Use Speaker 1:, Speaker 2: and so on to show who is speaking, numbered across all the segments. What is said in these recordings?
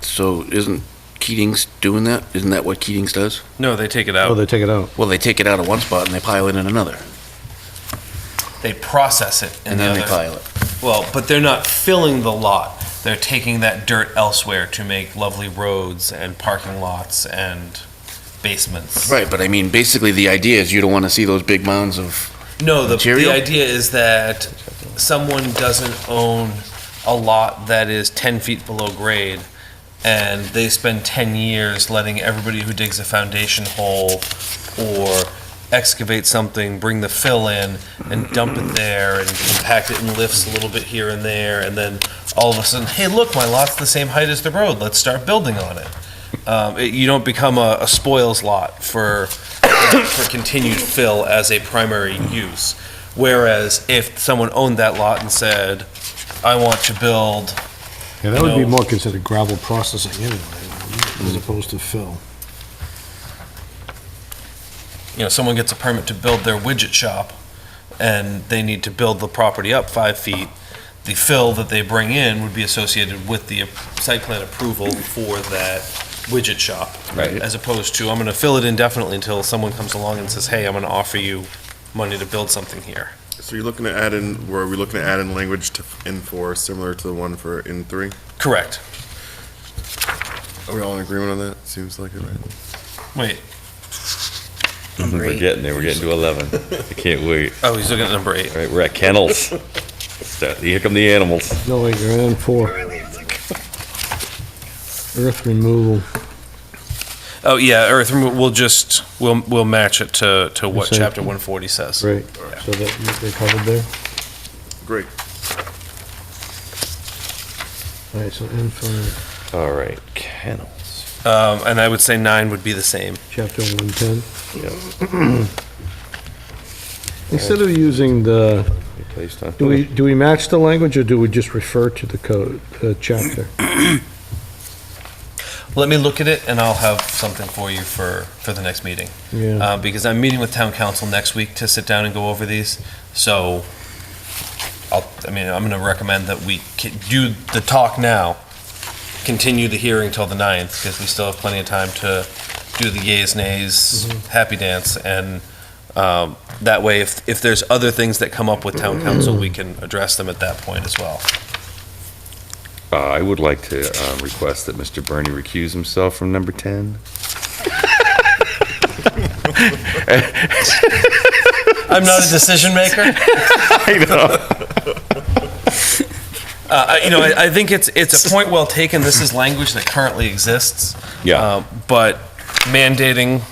Speaker 1: So isn't Keating's doing that? Isn't that what Keating's does?
Speaker 2: No, they take it
Speaker 3: Oh,
Speaker 2: out.
Speaker 3: they take it out.
Speaker 1: Well, they take it out of one spot and they pile it in another,
Speaker 2: They process it in
Speaker 1: and
Speaker 2: the
Speaker 1: then they
Speaker 2: other.
Speaker 1: pile it.
Speaker 2: Well, but they're not filling the lot. They're taking that dirt elsewhere to make lovely roads and parking lots and basements.
Speaker 1: Right, but I mean, basically, the idea is you don't want to see those big mounds of.
Speaker 2: No, the, the
Speaker 1: Material?
Speaker 2: idea is that someone doesn't own a lot that is 10 feet below grade, and they spend 10 years letting everybody who digs a foundation hole or excavate something, bring the fill in, and dump it there, and compact it in lifts a little bit here and there, and then all of a sudden, hey, look, my lot's the same height as the road, let's start building on it. Um, it you don't become a, a spoils lot for for continued fill as a primary use. Whereas if someone owned that lot and said, I want to build,
Speaker 3: Yeah, that would be
Speaker 2: No.
Speaker 3: more considered gravel processing anyway, as opposed to fill.
Speaker 2: you know, someone gets a permit to build their widget shop and they need to build the property up five feet, the fill that they bring in would be associated with the site plan approval for that widget shop.
Speaker 1: Right.
Speaker 2: As opposed to, I'm going to fill it indefinitely until someone comes along and says, hey, I'm going to offer you money to build something here.
Speaker 4: So you're looking to add in, were we looking to add in language to in four, similar to the one for in three?
Speaker 2: Correct.
Speaker 4: Are we all in agreement on that? Seems like it, right?
Speaker 2: Wait,
Speaker 5: We're getting there. We're getting to 11. I can't wait.
Speaker 2: oh, he's looking at number eight.
Speaker 5: All right, we're at kennels. Start, here come the animals.
Speaker 3: No, wait, you're in four. Earth removal.
Speaker 2: Oh yeah, Earth. remo- We'll just we'll we'll match it to to what
Speaker 3: Say-
Speaker 2: chapter one forty says.
Speaker 3: Right, so that, they covered there?
Speaker 4: Great.
Speaker 3: All right, so in for
Speaker 5: All right, kennels.
Speaker 2: Um, and I would say nine would be the same.
Speaker 3: chapter 110.
Speaker 5: Yep.
Speaker 3: Instead of using the,
Speaker 5: be Placed on.
Speaker 3: do we, do we match the language, or do we just refer to the code, uh, chapter?
Speaker 2: Let me look at it, and I'll have something for you for for the next meeting.
Speaker 3: Yeah,
Speaker 2: Uh, because I'm meeting with town council next week to sit down and go over these. So, I'll, I mean, I'm going to recommend that we ki- do the talk now, continue the hearing till the 9th, because we still have plenty of time to do the yays, nays, happy dance, and um, that way, if, if there's other things that come up with town council, we can address them at that point as well.
Speaker 5: Uh, I would like to um, request that Mr. Bernie recuse himself from number 10.
Speaker 2: I'm not a decision maker.
Speaker 5: I know.
Speaker 2: Uh, I- you know, I, I think it's, it's a point well taken. This is language that currently exists.
Speaker 5: Yeah.
Speaker 3: Um,
Speaker 2: Uh, But mandating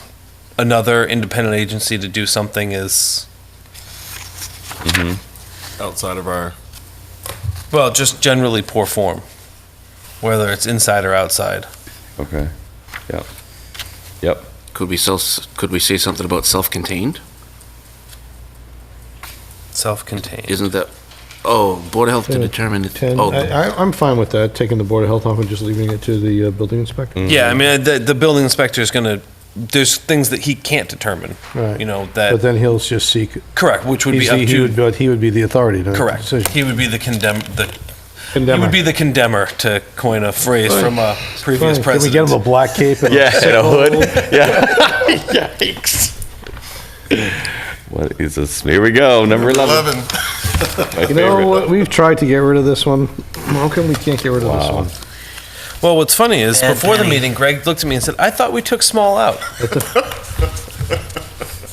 Speaker 2: another independent agency to do something is,
Speaker 4: Outside of our.
Speaker 2: well, just generally poor form, whether it's inside or outside.
Speaker 5: Okay. Yep. Yep.
Speaker 1: Could we self? Could we say something about self-contained?
Speaker 2: Self-contained.
Speaker 1: Isn't that? Oh, board of health to
Speaker 3: Yeah,
Speaker 1: determine. It,
Speaker 3: 10,
Speaker 1: oh,
Speaker 3: I, I- I'm fine with that, taking the Board of Health off and just leaving it to the uh, building inspector.
Speaker 2: Yeah, I mean, uh, the, the building inspector is going to, there's things that he can't determine,
Speaker 3: Right.
Speaker 2: you know,
Speaker 3: But
Speaker 2: that,
Speaker 3: then he'll just seek,
Speaker 2: correct, which would be
Speaker 3: he's-
Speaker 2: up
Speaker 3: he would,
Speaker 2: to,
Speaker 3: but he would be the authority to. make the
Speaker 2: correct.
Speaker 3: decision.
Speaker 2: He would be the condemn, the, he
Speaker 3: Condemn
Speaker 2: would
Speaker 3: her.
Speaker 2: be the condemner, to coin a phrase from a previous
Speaker 3: Fine, Can we
Speaker 2: president.
Speaker 3: get him a black cape and a sickle?
Speaker 5: Yeah. Yikes. What is this? Here we go. Number 11. My
Speaker 3: You
Speaker 5: favorite.
Speaker 3: know what? We've tried to get rid of this one. How come we can't get rid of this one?
Speaker 2: Well, what's funny is
Speaker 6: Bad
Speaker 2: before the
Speaker 6: penny.
Speaker 2: meeting, Greg looked at me and said, "I thought we took small out."
Speaker 6: That's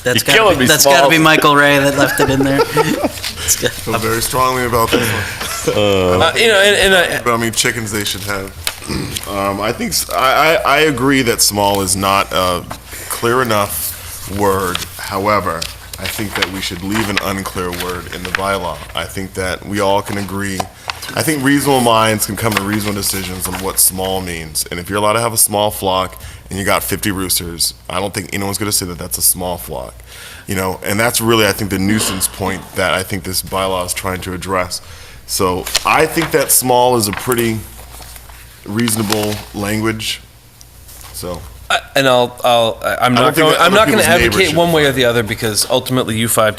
Speaker 5: You're
Speaker 6: gotta
Speaker 5: killing
Speaker 6: be,
Speaker 5: me,
Speaker 6: that's gotta
Speaker 5: Smalls.
Speaker 6: be Michael Ray that left it in there. It's got-
Speaker 4: Feel very strongly about this one.
Speaker 2: Uh, you know, and, and
Speaker 4: But I mean, chickens they should have. Um, I think s- I, I- I agree that small is not a clear enough word. However, I think that we should leave an unclear word in the bylaw. I think that we all can agree. I think reasonable minds can come to reasonable decisions on what small means. And if you're allowed to have a small flock and you got 50 roosters, I don't think anyone's going to say that that's a small flock. You know, and that's really I think the nuisance point that I think this bylaw is trying to address. So I think that small is a pretty reasonable language. So
Speaker 2: I, and I'll, I'll, I'm
Speaker 4: I don't
Speaker 2: not
Speaker 4: think
Speaker 2: going,
Speaker 4: that
Speaker 2: I'm
Speaker 4: other
Speaker 2: not going to
Speaker 4: people's neighbors
Speaker 2: advocate
Speaker 4: should
Speaker 2: one way or the other because ultimately you five